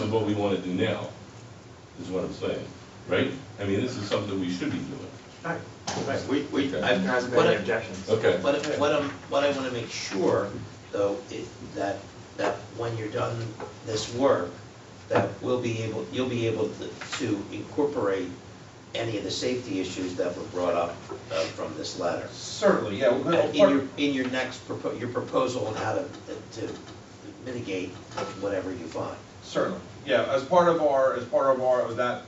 is what we want to do now, is what I'm saying, right? I mean, this is something we should be doing. Right, right, we, we, Okay. I've not What been I- any objections. Okay. What, I- what I'm, what I wanna make sure, though, is that, that when you're done this work, that we'll be able, you'll be able to- to incorporate any of the safety issues that were brought up uh, from this letter. Certainly, yeah. well, Uh, part- In your, in your next, propo- your proposal on how to, to mitigate whatever you find. Certainly, yeah, as part of our, as part of our, of that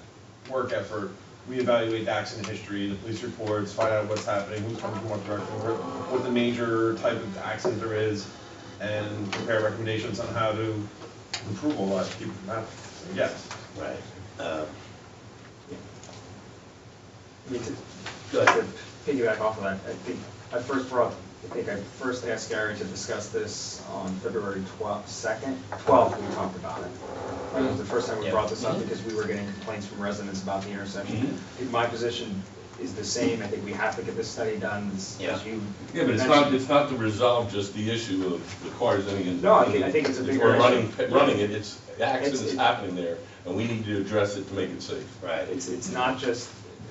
work effort, we evaluate the accident history, the police reports, find out what's happening, who's coming from what direction, where- what the major type of accident there is, and prepare recommendations on how to improve all that, keep from happening. So, yes. Right. Uh, I mean, to- Go to ahead. piggyback off of that, I think, I first brought, I think I first asked Gary to discuss this on February twelfth, second, twelfth, we talked about it. That was the first time we Yeah. Mm-hmm. brought this up because we were getting complaints from residents about the intersection. I think My position is the same, I think we have to get this study done, as Yeah. as you. Yeah, but it's not, it's not to resolve just the issue of the cars ending in. No, I think- I think it's a bigger We're running, issue. running it, it's, the accident It's- is it- happening there, and we need to address it to make it safe. Right. It's, it's not just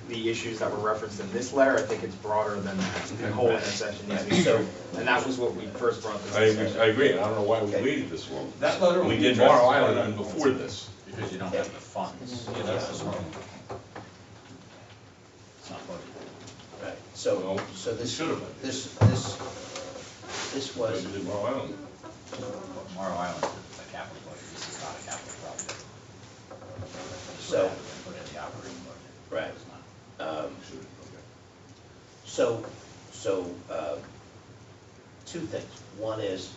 the issues that were referenced in this letter, I think it's broader than that. the whole intersection needs to be So- served. And that was what we first brought this I, discussion. I agree, and I don't know why we Okay. waited this long. That letter will We be did addressed Morrow as part of Island that. before this. Because you don't have the funds, yeah, that's the problem. It's not budgeted. Right, so, Well, so this, should have. this, this, this We was, did Morrow Island. But Morrow Island is a capital budget, this is not a capital project. This would So- have been Put in the operating budget. Right. It's not. um, Should have, so, so, uh, two things. One is,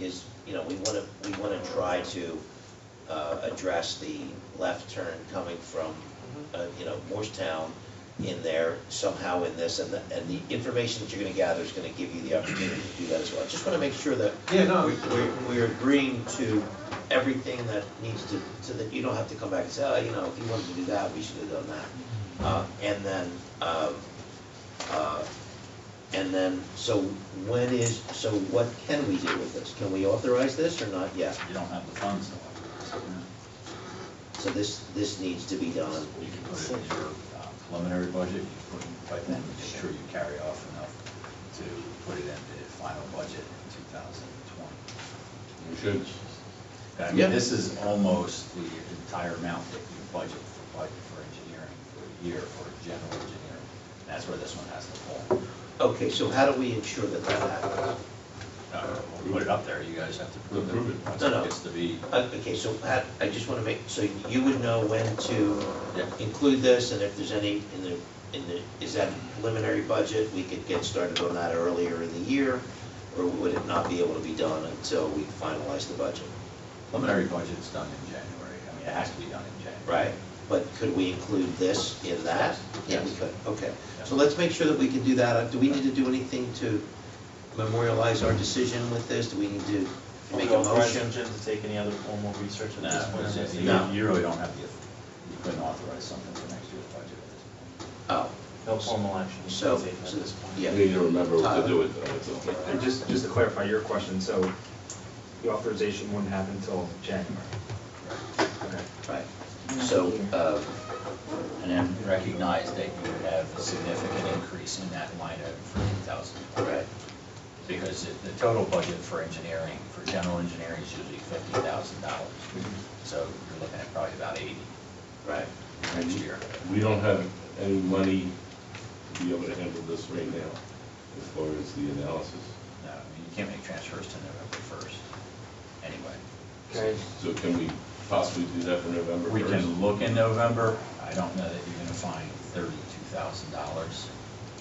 is, you know, we want to, we want to try to uh, address the left turn coming from, Mm-hmm. uh, you know, Morristown in there somehow in this, and the, and the information that you're going to gather is going to give you the opportunity to do that as well. I just want to make sure that Yeah, no. we- we- we're agreeing to everything that needs to, so that you don't have to come back and say, oh, you know, if you wanted to do that, we should have done that. Uh, And then, um, uh, and then, so when is, so what can we do with this? Can we authorize this or not yet? You don't have the funds, however. So this, this needs to be done. You can put it in your uh, preliminary budget, you can put it, but then make sure you carry off enough to put it in the final budget in two thousand twenty. we should. I Yeah. mean, this is almost the entire amount that you budget for, budget for engineering, for a year, for general engineering. That's where this one has to fall. Okay, so how do we ensure that that happens? Uh, We'll put it up there, you guys have to prove Prove it. it. Once No, no. it gets to be, Uh, Okay, so how- I just want to make, so you would know when to Yeah. include this, and if there's any in the, in the, is that preliminary budget? We could get started on that earlier in the year, or would it not be able to be done until we finalize the budget? preliminary budget's done in January, I mean, it has to be done in January. Right, but could we include this in that? Yeah, we Yes. could, okay. So let's make sure that we can do that. Uh, Do we need to do anything to memorialize our decision with this? Do we need to make a motion? Jim to take any other formal research at No, this point? it's- Jesse? No. you- you really don't have the, you couldn't authorize something for next year's budget at this point. Oh, No formal action is So- taken at so- this point. yeah. We need to remember what Uh, to do with that, that's all. And just, just to clarify your question, so the authorization wouldn't happen until January? Okay. right. So, uh, And then recognize that you would have a significant increase in that line item for 2020. Right. Because it- the total budget for engineering, for general engineering is usually $50,000. So you're looking at probably about 80 right, next year. We don't have any money to be able to handle this right now, as far as the analysis. No, I mean, you can't make transfers to November 1st, anyway. Okay, So can we possibly do that for November We first? can look in November. I don't know that you're going to find $32,000.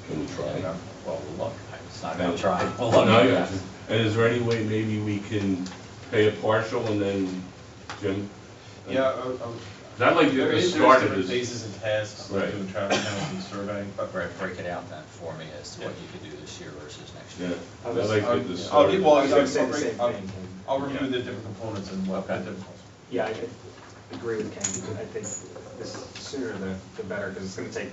Can we try? Well, we'll look. It's not going to try. We'll look. No, yeah. And is there any way maybe we can pay a partial and then, Jim? Yeah, I- I- I'd like to There get this is, there's started. different as- phases and tasks, Right. like doing traffic counts and surveying, but. Break, break it out then for me as to what you could do this year versus next Yeah, year. I'll I'd just- like to I'll- get this I'll started. give- well, I I'll- would say the I'll- same I'll- thing, Ken. I'll review the different components and what the different. Yeah, I I agree with Ken, I think the sooner the, the better, because it's gonna take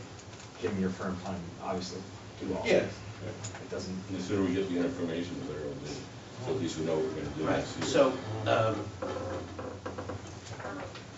Jim your firm time, obviously, to do all Yeah. this. It doesn't, And The sooner we get the information, the better it'll be. So at least we know what we're gonna do right. next year. So, um,